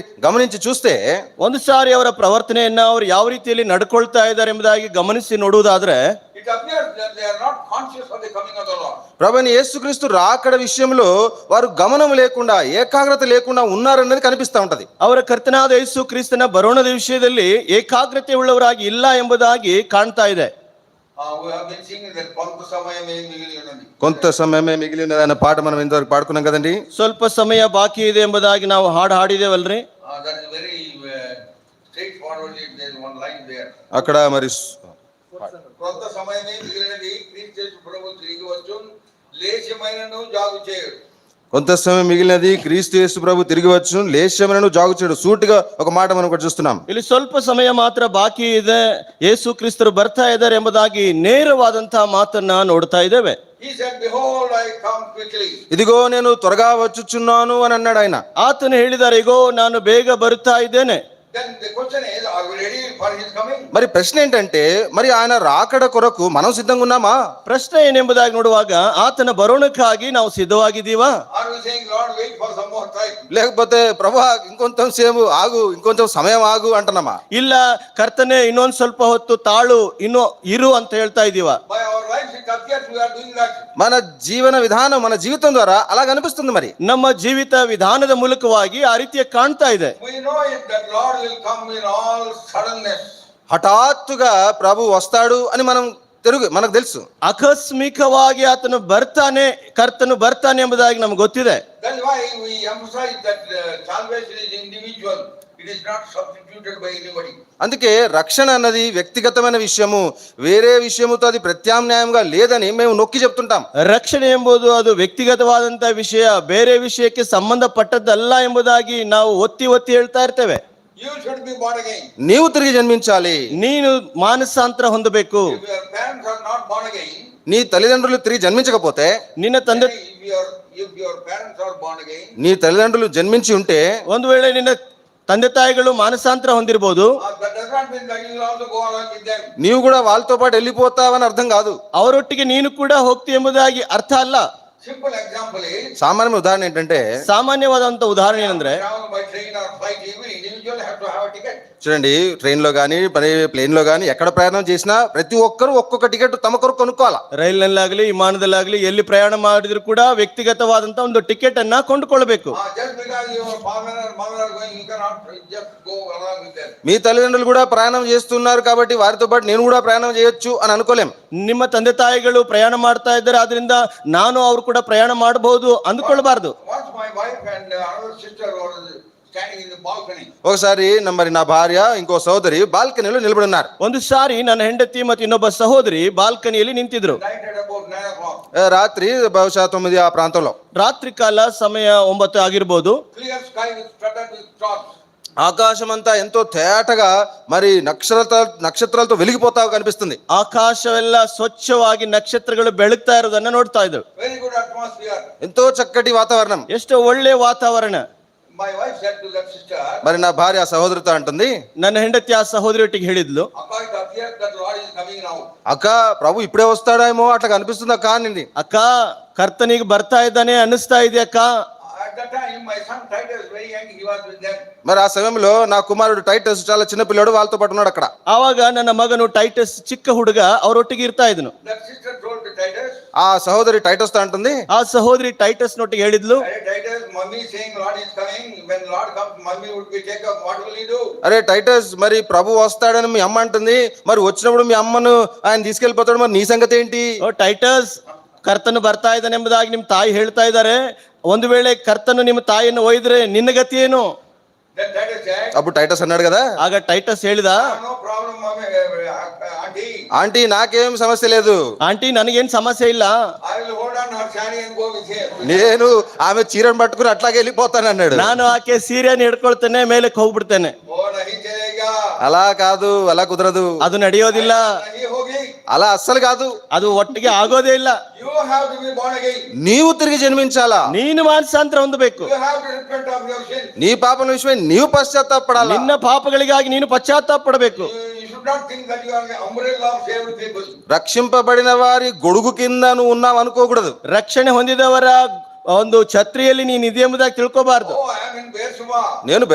ಗಮನಿಸಿ చూస్తే ಒಂದು ಸಾರಿ ಅವರ ಪ್ರವರ್ತನೆಯನ್ನ ಅವರು ಯಾವ ರೀತಿಯಲ್ಲಿ ನಡ್ಕೊಳ್ತಾ ಇದ್ದಾರೆ ಎಂಬುದಾಗಿ ಗಮನಿಸಿ ನೋಡುವುದಾದ್ರೆ It appears that they are not conscious of the coming of the Lord. ప్రభుని యేసుక్రీస్తు రాకడ విషయంలో వారు గమనం లేకుండా ఏకాగ్రత లేకుండా ఉన్నారన్నది కనిపిస్తా ఉంటది ಅವರ ಕರ್ತನಾದ ಯೇಸು ಕ್ರಿಸ್ತನ ಬರೋಣದ ವಿಷಯದಲ್ಲಿ ಏಕಾಗ್ರತೆ ಉಳ್ಳವರಾಗಿ ಇಲ್ಲ ಎಂಬುದಾಗಿ ಕಾಣ್ತಾ ಇದೆ Uh, we have been singing that Pantu Samaya May Migiliyunani. కొంత సమయమే మిగిలి ఉన్నది అనే పాట మనం ఇంతవరకు పాడుకున్నాం కదండి ಸ್ವಲ್ಪ ಸಮಯ ಬಾಕಿ ಇದೆ ಎಂಬುದಾಗಿ ನಾವು ಹಾಡು ಹಾಡಿದೇವಲ್ರಿ Uh, that is very uh, straightforwardly, there is one line there. అక్కడ మరి స్- కొంత సమయమే మిగిలినది క్రీస్తు యేసు ప్రభువు తిరిగి వచ్చు లేచమైనను జాగు చేయడు కొంత సమయం మిగిలినది క్రీస్తు యేసు ప్రభు తిరిగి వచ్చు లేశమనను జాగు చేయడు సూటిగా ఒక మాట మనం కూడా చూస్తున్నాం ಇಲ್ಲಿ ಸ್ವಲ್ಪ ಸಮಯ ಮಾತ್ರ ಬಾಕಿ ಇದೆ ಯೇಸು ಕ್ರಿಸ್ತರು ಬರ್ತಾ ಇದ್ದಾರೆ ಎಂಬುದಾಗಿ ನೇರವಾದಂತಹ ಮಾತನ್ನ ನೋಡ್ತಾ ಇದ್ದೇವೆ he said behold i come quickly ఇదిగో నేను త్వరగా వచ్చుచున్నాను అని అన్నాడు ఆయన ಆತನು ಹೇಳಿದ್ದಾರೆ ಇಗೋ ನಾನು ಬೇಗ ಬರುತ್ತಾ ಇದ್ದೇನೆ then the question is are we ready for his coming మరి ప్రశ్న ఏంటంటే మరి ఆయన రాకడ కొరకు మనం సిద్ధంగా ఉన్నామా ಪ್ರಶ್ನೆ ಏನೆಂಬುದಾಗಿ ನೋಡುವಾಗ ಆತನ ಬರೋಣಕ್ಕಾಗಿ ನಾವು ಸಿದ್ಧವಾಗಿದ್ದೀವಾ are we saying lord wait for some more time లేకపోతే ప్రభా ఇంకొంచెం సేపు ఆగు ఇంకొంచెం సమయం ఆగు అంటున్నామా ಇಲ್ಲ ಕರ್ತನೆ ಇನ್ನೊಂದ್ ಸ್ವಲ್ಪ ಹೊತ್ತು ತಾಳು ಇನ್ನು ಇರು ಅಂತ ಹೇಳ್ತಾ ಇದ್ದೀವಾ by our lives it appears we are doing that మన జీవన విధానం మన జీవితం ద్వారా అలాగ అనిపిస్తుంది మరి ನಮ್ಮ ಜೀವಿತ ವಿಧಾನದ ಮೂಲಕವಾಗಿ ಆ ರೀತಿಯ ಕಾಣ್ತಾ ಇದೆ we know it that lord will come in all suddenness హఠాత్తుగా ప్రభు వస్తాడు అని మనం తెలుగు మనకు తెలుసు ಆಕಸ್ಮಿಕವಾಗಿ ಆತನು ಬರ್ತಾನೆ ಕರ್ತನು ಬರ್ತಾನೆ ಎಂಬುದಾಗಿ ನಮ್ಗೆ ಗೊತ್ತಿದೆ that's why we emphasize that uh, salvation is individual it is not substituted by anybody అందుకే రక్షణ అన్నది వ్యక్తిగతమైన విషయము వేరే విషయముతో అది ప్రత్యామ్నాయంగా లేదని మేము నొక్కి చెప్తుంటాం ರಕ್ಷಣೆ ಎಂಬುದು ಅದು ವ್ಯಕ್ತಿಗತವಾದಂತಹ ವಿಷಯ ಬೇರೆ ವಿಷಯಕ್ಕೆ ಸಂಬಂಧಪಟ್ಟದ್ದಲ್ಲ ಎಂಬುದಾಗಿ ನಾವು ಒತ್ತಿ ಒತ್ತಿ ಹೇಳ್ತಾ ಇರ್ತೇವೆ you should be born again నీవు తిరిగి జన్మించాలి ನೀನು ಮಾನಸಾಂತರ ಹೊಂದಬೇಕು if your parents are not born again నీ తల్లిదండ్రులు తిరిగి జన్మించకపోతే ನಿನ್ನ ತಂದೆ If your, if your parents are born again, నీ తల్లిదండ్రులు జన్మించి ఉంటే ಒಂದು ವೇಳೆ ನಿನ್ನ ತಂದೆ ತಾಯಿಗಳು ಮಾನಸಾಂತರ ಹೊಂದಿರಬಹುದು uh, that does not mean that you will also go along with them. నీవు కూడా వాళ్ళతో పాటు వెళ్ళిపోతావని అర్థం కాదు ಅವರೊಟ್ಟಿಗೆ ನೀನು ಕೂಡ ಹೋಗ್ತಿ ಎಂಬುದಾಗಿ ಅರ್ಥ ಅಲ್ಲ Simple example is, సామాన్య ఉదాహరణ ఏంటంటే ಸಾಮಾನ್ಯವಾದಂತ ಉದಾಹರಣೆ ಏನಂದ್ರೆ travel by train or flight, every individual have to have a ticket. చూడండి ట్రైన్లో కానీ మరి ప్లేన్లో కానీ ఎక్కడ ప్రయాణం చేసినా ప్రతి ఒక్కరు ఒక్కొక్క టికెట్ తమ కొరకు కొనుక్కోవాలా ರೈಲ್ನಲ್ಲಾಗ್ಲಿ ವಿಮಾನದಲ್ಲಾಗ್ಲಿ ಎಲ್ಲಿ ಪ್ರಯಾಣ ಮಾಡಿದ್ರು ಕೂಡ ವ್ಯಕ್ತಿಗತವಾದಂತ ಒಂದು ಟಿಕೆಟ್ ಅನ್ನ ಕೊಂಡುಕೊಳ್ಬೇಕು Uh, just because your father and mother are going, you cannot just go along with them. మీ తల్లిదండ్రులు కూడా ప్రయాణం చేస్తున్నారు కాబట్టి వారితో పాటు నేను కూడా ప్రయాణం చేయొచ్చు అని అనుకోలేం ನಿಮ್ಮ ತಂದೆ ತಾಯಿಗಳು ಪ್ರಯಾಣ ಮಾಡ್ತಾ ಇದ್ದಾರೆ ಆದ್ರಿಂದ ನಾನು ಅವ್ರು ಕೂಡ ಪ್ರಯಾಣ ಮಾಡಬಹುದು ಅಂದ್ಕೊಳ್ಬಾರ್ದು Once my wife and uh, another sister were standing in the balcony. ఒకసారి నా- మరి నా భార్య ఇంకో సోదరి బాల్కనీలో నిలబడి ఉన్నారు ಒಂದು ಸಾರಿ ನನ್ನ ಹೆಂಡತಿ ಮತ್ತು ಇನ್ನೊಬ್ಬ ಸಹೋದರಿ ಬಾಲ್ಕನಿಯಲ್ಲಿ ನಿಂತಿದ್ರು Night at about nine o'clock. ఆ, రాత్రి బహుశా తొమ్మిది ఆ ప్రాంతంలో ರಾತ್ರಿ ಕಾಲ ಸಮಯ onbatu ಆಗಿರ್ಬೋದು Clear sky with studded with stars. ఆకాశమంతా ఎంతో తేటగా మరి నక్షత్ర నక్షత్రాలతో వెలిగిపోతా కనిపిస్తుంది ಆಕಾಶವೆಲ್ಲ ಸ್ವಚ್ಛವಾಗಿ ನಕ್ಷತ್ರಗಳು ಬೆಳಗ್ತಾ ಇರೋದನ್ನ ನೋಡ್ತಾ ಇದ್ರು Very good atmosphere. ఎంతో చక్కటి వాతావరణం ಎಷ್ಟು ಒಳ್ಳೆ ವಾತಾವರಣ My wife said to that sister, మరి నా భార్య ఆ సహోదరితో అంటుంది ನನ್ನ ಹೆಂಡತಿ ಆ ಸಹೋದರಿಯೊಟ್ಟಿಗೆ ಹೇಳಿದ್ಲು Akka, it appears that Lord is coming now. అక్క ప్రభు ఇప్పుడే వస్తాడేమో అట్లా కనిపిస్తుంది అక్క అని ಅಕ್ಕ ಕರ್ತನಿಗೆ ಬರ್ತಾ ಇದ್ದಾನೆ ಅನ್ನಿಸ್ತಾ ಇದೆ ಅಕ್ಕ At that time, my son Titus, very young, he was with them. మరి ఆ సమయంలో నా కుమారుడు టైటస్ చాలా చిన్న పిల్లాడు వాళ్ళతో పాటు ఉన్నాడు అక్కడ ಆವಾಗ ನನ್ನ ಮಗನು ಟೈಟಸ್ ಚಿಕ್ಕ ಹುಡುಗ ಅವರೊಟ್ಟಿಗೆ ಇರ್ತಾ ಇದ್ನು That sister told to Titus, ఆ ಸಹోదరి ಟైటస్తో అంటుంది ಆ ಸಹೋದರಿ ಟೈಟಸ್ ನೊಟ್ಟಿಗೆ ಹೇಳಿದ್ಲು "Hey, Titus, mommy is saying Lord is coming. When Lord comes, mommy would be taken. What will he do? అరే టైటస్ మరి ప్రభు వస్తాడని మీ అమ్మ అంటుంది మరి వచ్చినప్పుడు మీ అమ్మను ఆయన తీసుకెళ్లిపోతాడు మరి నీ సంగతి ఏంటి "ಓ, ಟೈಟಸ್ ಕರ್ತನು ಬರ್ತಾ ಇದ್ದಾನೆ ಎಂಬುದಾಗಿ ನಿಮ್ಮ ತಾಯಿ ಹೇಳ್ತಾ ಇದ್ದಾರೆ ಒಂದು ವೇಳೆ ಕರ್ತನು ನಿಮ್ಮ ತಾಯಿಯನ್ನು ಒಯ್ದ್ರೆ ನಿನ್ನ ಗತಿ ಏನು Then Titus said, అప్పుడు టైటస్ అన్నాడు కదా ಆಗ ಟೈಟಸ್ ಹೇಳಿದ "Ah, No problem, mommy, uh, uh, auntie. Auntie నాకేం సమస్య లేదు ಆಂಟಿ ನನಗೇನ್ ಸಮಸ್ಯೆ ಇಲ್ಲ I will hold on her saree and go with him. నేను ఆమె చీరను పట్టుకుని అట్లాగే వెళ్ళిపోతాను అన్నాడు ನಾನು ಆಕೆ ಸೀರೆಯನ್ನು ಹಿಡ್ಕೊಳ್ತೇನೆ ಮೇಲೆ ಹೋಗ್ಬಿಡ್ತೇನೆ Oh, nahi chalega. అలా కాదు అలా కుదరదు ಅದು ನಡೆಯೋದಿಲ್ಲ Nahi hogi. అలా అస్సలు కాదు ಅದು ಒಟ್ಟಿಗೆ ಆಗೋದೇ ಇಲ್ಲ You have to be born again. నీవు తిరిగి జన్మించాలా ನೀನು ಮಾನಸಾಂತರ ಹೊಂದಬೇಕು You have to repent of your sin. నీ పాపం విషయమై నీవు పశ్చాత్తాపడాలా ನಿನ್ನ ಪಾಪಗಳಿಗಾಗಿ ನೀನು ಪಶ್ಚಾತ್ತಾಪ ಪಡಬೇಕು You, you should not think that you are the umbrella of saved people. రక్షింపబడిన వారి గొడుగు కింద నువ్వు ఉన్నావు అనుకోకూడదు ರಕ್ಷಣೆ ಹೊಂದಿದವರ ಒಂದು ಛತ್ರಿಯಲ್ಲಿ ನೀನು ಇದೆ ಎಂಬುದಾಗಿ ತಿಳ್ಕೋಬಾರ್ದು Oh, I am in Beersheba. నేను